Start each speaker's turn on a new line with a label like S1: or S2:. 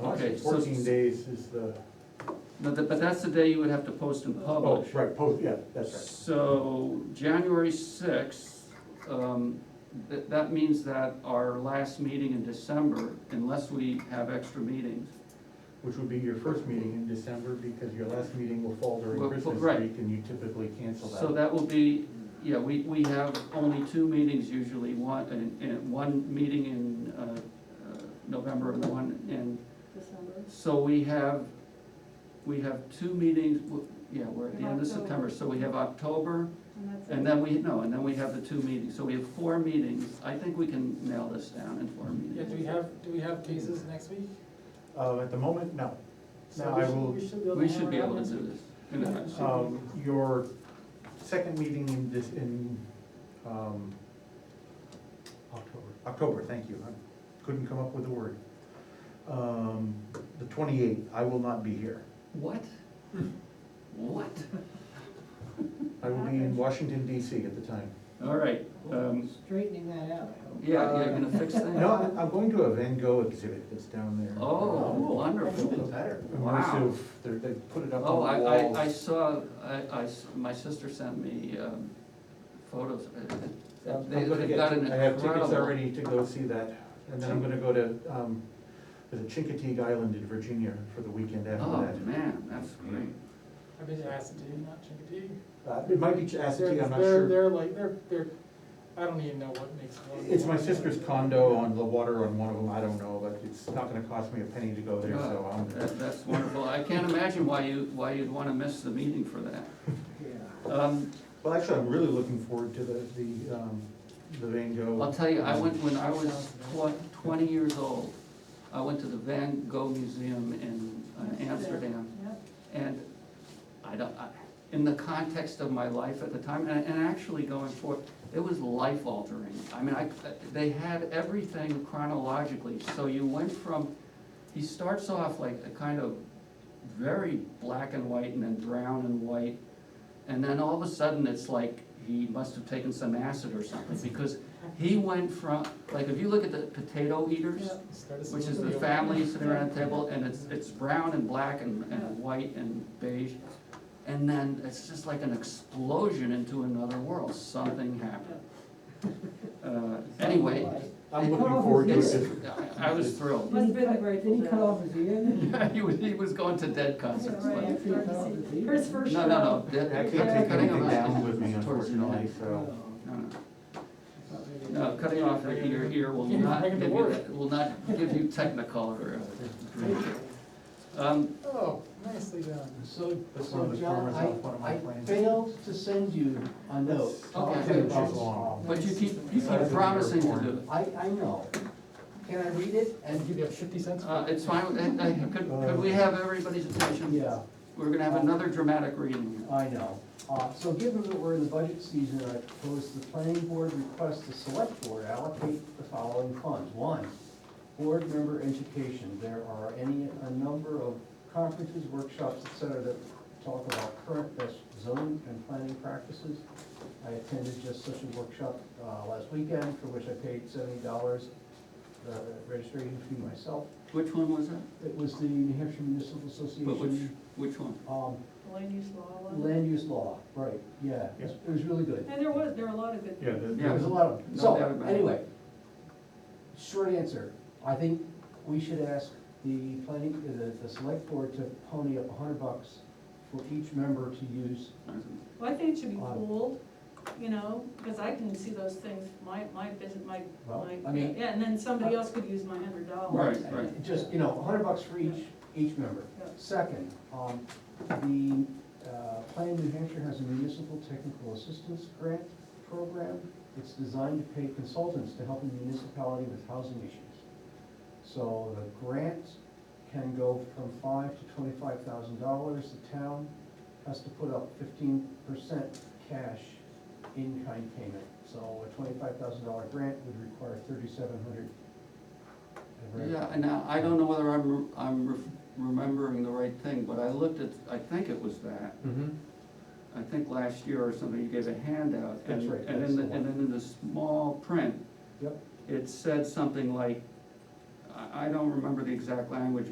S1: Okay, so-
S2: Fourteen days is the,
S1: But, tha- but that's the day you would have to post and
S2: oh,
S1: publish.
S2: right, post, yeah, that's right.
S1: So, January sixth, um, that, that means that our last meeting in December, unless we have extra meetings,
S2: Which would be your first meeting in December, because your last meeting will fall
S1: Well,
S2: during Christmas
S1: right.
S2: week, and you typically cancel
S1: So
S2: that.
S1: that will be, yeah, we, we have only two meetings usually, one, and, and one meeting in, uh, uh, November and one, and,
S3: December.
S1: so we have, we have two meetings, w- yeah, we're at the end of September,
S3: October.
S1: so we have October,
S3: And that's it.
S1: and then we, no, and then we have the two meetings, so we have four meetings, I think we can nail this down in four
S4: Yeah, do
S1: meetings.
S4: we have, do we have cases next week?
S2: Uh, at the moment, no.
S4: So
S2: No,
S4: we
S2: I
S4: should-
S2: will-
S4: We should be able to.
S1: We should
S4: hammer
S1: be
S4: it out
S1: able to
S4: next
S1: do
S4: week.
S1: this. in advance.
S2: Um, your second meeting in this, in, um,
S4: October.
S2: October, thank you, I couldn't come up with a word. Um, the twenty-eighth, I will not be here.
S1: What? What?
S2: I will be in Washington DC at the time.
S1: All right, um,
S5: Straightening that out, I hope.
S1: yeah, yeah, you're gonna fix things?
S2: Uh, No, I- I'm going to a Van Gogh exhibit that's down there.
S1: Oh, wonderful.
S2: better.
S1: Wow.
S2: Immersive, they're, they put it up
S1: Oh, I,
S2: on the walls.
S1: I, I saw, I, I s- my sister sent me, um, photos. Uh,
S2: I'm
S1: They,
S2: I'm gonna
S1: they
S2: get,
S1: got
S2: I
S1: an
S2: have tickets
S1: incredible,
S2: already to go see that, and then I'm gonna go to, um, the Chincoteague Island in Virginia for the weekend
S1: oh,
S2: after
S1: man, that's great.
S4: I bet you Assateague, not Chincoteague.
S2: that. Uh, It might be Assateague,
S4: They're-
S2: I'm not
S4: they're-
S2: sure.
S4: They're like, they're, they're, I don't even know what makes. one
S2: It's my
S4: one.
S2: sister's condo on the water on one of them, I don't know, but it's not gonna cost me a penny to go there, so
S1: Oh,
S2: I'm,
S1: That, that's wonderful. I can't imagine why you, why you'd wanna miss the meeting for that.
S5: Yeah.
S1: Um,
S2: well, actually, I'm really looking forward to the, the, um, the Van Gogh.
S1: I'll tell you, I went, when I was tw- twenty years old, I went to the Van Gogh Museum in uh, Amsterdam.
S3: Yep.
S1: And I don't, I, in the context of my life at the time, and, and actually going forward, it was life altering. I mean, I, they had everything chronologically, so you went from, he starts off like a kind of very black and white and then brown and white. And then all of a sudden, it's like he must have taken some acid or something, because he went from, like, if you look at the potato eaters,
S3: Yep.
S4: Start us
S1: which
S4: with
S1: is the
S4: video.
S1: family sitting around the table, and it's, it's brown and black and, and white and beige. And then it's just like an explosion into another world, something happened. Uh, anyway,
S2: I'm looking forward to
S1: it's,
S2: it.
S1: I I was thrilled.
S3: Must've been a great
S5: Didn't he
S3: show.
S5: cut off his ear? then?
S1: He was, he was going to dead concerts,
S3: Yeah,
S1: but,
S3: right.
S5: After he cut off his ear?
S3: Here's first
S1: no, no,
S3: round.
S1: no, dead,
S2: I can't
S1: cutting
S2: take
S1: him
S2: anything
S1: off
S2: down with me,
S1: towards the end.
S2: unfortunately, so.
S5: Oh.
S1: No, no.
S4: Not
S1: No, cutting off your ear, ear will
S4: You're
S1: not
S4: making
S1: give
S4: it
S1: you,
S4: worse.
S1: that- will not give you technicolor. uh, green. Um,
S4: Oh, nicely done.
S6: So,
S2: That's one of
S6: so
S2: the
S6: John,
S2: farmers off one of my
S6: I, I
S2: plans.
S6: failed to send you a note.
S2: That's-
S1: Okay.
S2: Ten inches long.
S1: but you keep, you keep promising to do it.
S6: I, I know. Can I read it?
S4: And give you fifty cents.
S1: Uh, it's fine, Uh, uh, could, could we have everybody's attention?
S6: Yeah,
S1: We're gonna have another dramatic reading.
S6: I know. Uh, so given that we're in the budget season, I propose the planning board request the select board allocate the following funds. One, board member education. There are any, a number of conferences, workshops, et cetera, that talk about current best zoning and planning practices. I attended just such a workshop uh, last weekend, for which I paid seventy dollars, the registration fee myself.
S1: Which one was that?
S6: It was the New Hampshire Municipal
S1: But which,
S6: Association,
S1: which one?
S6: um,
S3: Land use law. wasn't it?
S6: land use law, right, yeah, it was- it was really good.
S3: And there was, there were a lot of good.
S2: Yeah, the-
S6: There was a lot of,
S1: No
S6: so,
S1: doubt about it.
S6: anyway, short answer, I think we should ask the planning, uh, the, the select board to pony up a hundred bucks for each member to use.
S3: Well, I think it should be
S6: Wow.
S3: pooled, you know, because I can see those things, my, my business, my,
S6: Well,
S3: my,
S6: I mean-
S3: yeah, and then somebody else could use my hundred dollars.
S1: Right, right.
S6: Just, you know, a hundred bucks for each, each member.
S3: Yeah.
S6: Second, um, the, uh, Plan New Hampshire has a municipal technical assistance grant program. It's designed to pay consultants to help a municipality with housing issues. So the grant can go from five to twenty-five thousand dollars. The town has to put up fifteen percent cash in-kind payment. So a twenty-five thousand dollar grant would require thirty-seven hundred.
S1: Yeah, and now, I don't know whether I'm, I'm re- remembering the right thing, but I looked at, I think it was that.
S2: Mhm.
S1: I think last year or something, you gave a handout. and-
S6: That's right,
S1: And
S6: that's
S1: in the,
S6: the
S1: and then in the small print,
S6: Yep.
S1: it said something like, I, I don't remember the exact language,